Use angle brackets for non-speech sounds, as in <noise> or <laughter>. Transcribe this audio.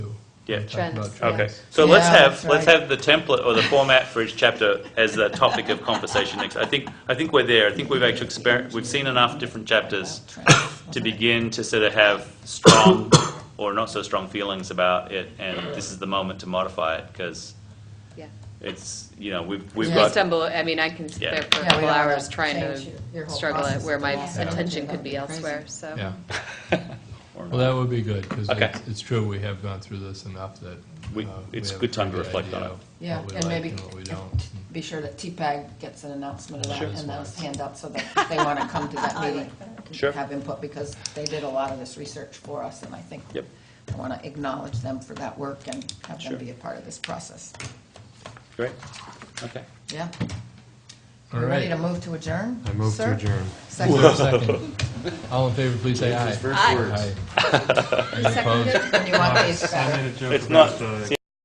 Yeah. Trends, About- yeah. Okay, so let's Yeah, have, that's let's right. have the template or the format for each chapter as a topic of conversation next. I think, I think we're there. I think we've actually exper, we've seen enough different chapters to begin to sort of have strong or not so strong feelings about it, and this is the moment to modify it, because Yeah. it's, you know, we've, we've Yeah. um, I got, stumble, I mean, I can sit Yeah. there for a Yeah, couple we all hours have trying changed your- your to whole struggle at process where of my that. attention could be Yeah. Crazy. elsewhere, so. Yeah, or well, not. that would be good, because Okay. it's, it's true, we have gone through this enough that. We- uh, it's have good a time to pretty good reflect on idea it. of Yeah, What we and like maybe and what we if- don't. Be sure that TPAG gets an announcement of that Sure. and those handouts so that they want to come to that meeting. and Sure. Have input because they did a lot of this research for us and I think Yep. I want to acknowledge them for that work and have Sure. them be a part of this process. Great, okay. Yeah? All You Ready to right. move to adjourn? I move sir? to adjourn. Is <laughs> Second, there a second? All in favor, please say aye. Those first words. Aye. Any opposed? and you want these back? <laughs> I made a joke It's about uh, not- the